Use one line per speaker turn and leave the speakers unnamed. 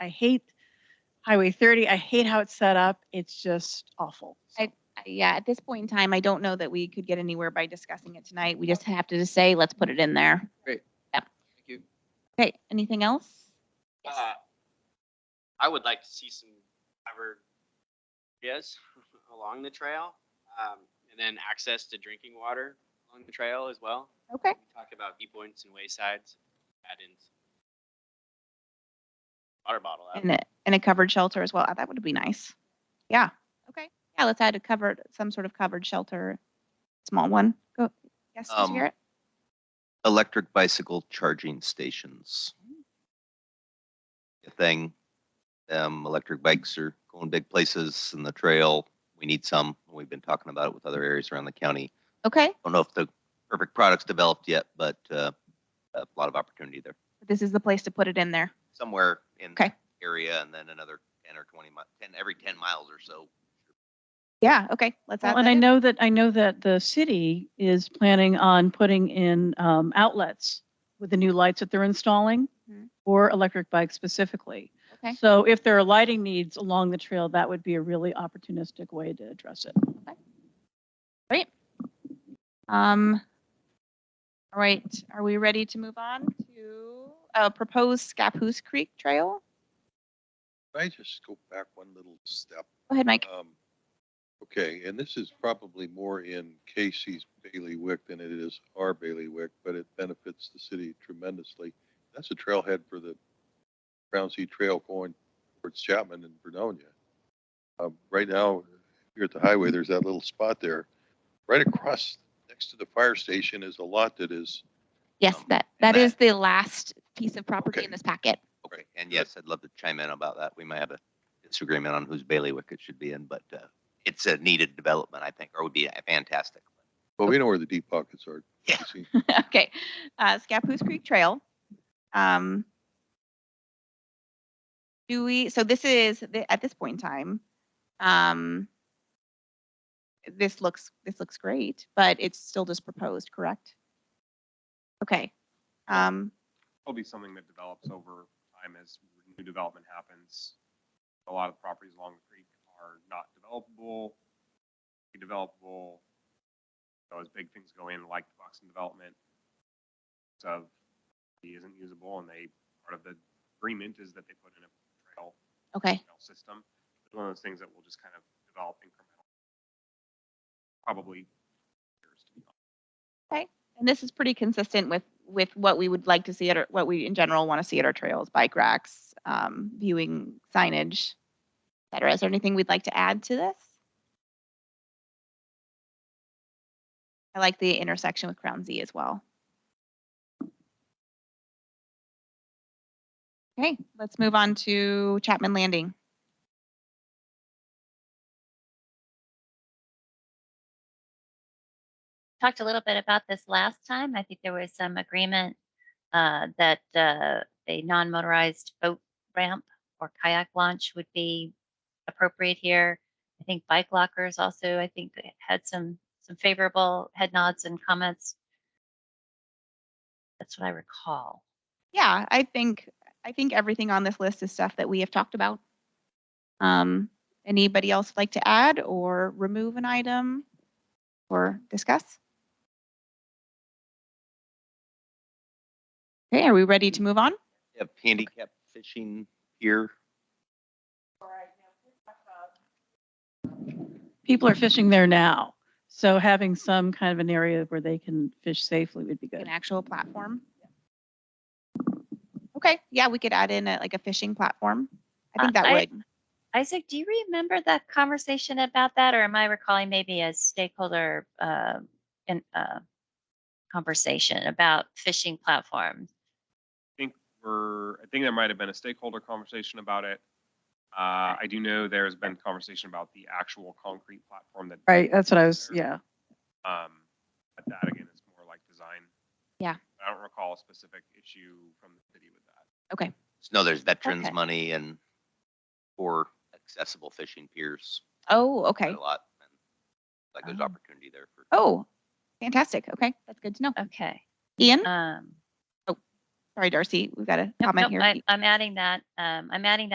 I hate Highway 30. I hate how it's set up. It's just awful. So,
I- Yeah, at this point in time, I don't know that we could get anywhere by discussing it tonight. We just have to just say, let's put it in there.
Thank you.
Okay, anything else?
Uh, I would like to see some covered areas along the trail, um, and then access to drinking water along the trail as well.
Okay.
We talked about viewpoints and waysides, add in some water bottle. out.
And a, and a covered shelter as well. Uh, That would be nice. Yeah, okay. Yeah, let's add a covered, some sort of covered shelter, small one. Go, yes, Mr.
Um,
Garrett?
electric bicycle charging stations. A thing, um, electric bikes are going big places in the trail. We need some. We've been talking about it with other areas around the county.
Okay,
Don't know if the perfect product's developed yet, but, uh, a lot of opportunity there.
this is the place to put it in there.
Somewhere in the
Okay.
area and then another ten or twenty mi- ten, every ten miles or so.
Yeah, okay, let's add
Well, and
that
I
in.
know that, I know that the city is planning on putting in um, outlets with the new lights that they're installing
Mhm.
for electric bikes specifically.
Okay.
So if there are lighting needs along the trail, that would be a really opportunistic way to address it.
Um, all right, are we ready to move on to, uh, proposed Scappoose Creek Trail?
Can I just go back one little step?
Go ahead, Mike.
Um, Okay, and this is probably more in Casey's bailiwick than it is our bailiwick, but it benefits the city tremendously. That's a trailhead for the Brown Sea Trail going towards Chapman and Vernonia. Um, Right now, here at the highway, there's that little spot there. Right across, next to the fire station is a lot that is,
Yes,
um,
that, that
that-
is the last piece of property
Okay.
in this packet.
Okay, and yes, I'd love to chime in about that. We might have a disagreement on whose bailiwick it should be in, but, uh, it's a needed development, I think, or would be fantastic.
well, we know where the deep pockets are.
Yeah.
Casey.
Okay, uh, Scappoose Creek Trail. Um, do we, so this is, the- at this point in time, um, this looks, this looks great, but it's still just proposed, correct? Okay, um,
will be something that develops over time as new development happens. A lot of properties along the creek are not developable, developable. So as big things go in, like the Buxton development, so he isn't usable, and they, part of the agreement is that they put in a trail,
okay,
trail system. It's one of those things that will just kind of develop incremental. Probably years to be honest.
and this is pretty consistent with, with what we would like to see at, our what we in general want to see at our trails, bike racks, um, viewing signage, et cetera. Is there anything we'd like to add to this? I like the intersection with Crown Z as well. Okay, let's move on to Chapman Landing.
talked a little bit about this last time. I think there was some agreement uh, that uh, a non-motorized boat ramp or kayak launch would be appropriate here. I think bike lockers also, I think eh, had some, some favorable head nods and comments. That's what I recall.
yeah, I think I think everything on this list is stuff that we have talked about. Um, anybody else like to add or remove an item or discuss? Okay, are we ready to move on?
You have handicapped fishing here.
People are fishing there now. So having some kind of an area where they can fish safely would be good.
An actual platform? Okay, yeah, we could add in a, like a fishing platform. I
Uh,
think that
I-
would.
Isaac, do you remember that conversation about that, or am I recalling maybe a stakeholder uh, in, uh, conversation about fishing platforms?
think we're, I think there might have been a stakeholder conversation about it. Uh, I do know there's been conversation about the actual concrete platform that.
Right, that's what I was, yeah.
Um, but that again is more like design.
Yeah.
I don't recall a specific issue from the city with that.
Just know there's veterans
Okay.
money and for accessible fishing piers.
Oh,
quite
okay.
A lot. and Like there's
Oh.
opportunity there for.
Oh, fantastic. Okay, that's good to know.
Okay.
Ian?
Um,
Sorry, Darcy, we've got a
nope,
comment
nope,
here.
I- I'm adding that, um, I'm adding that.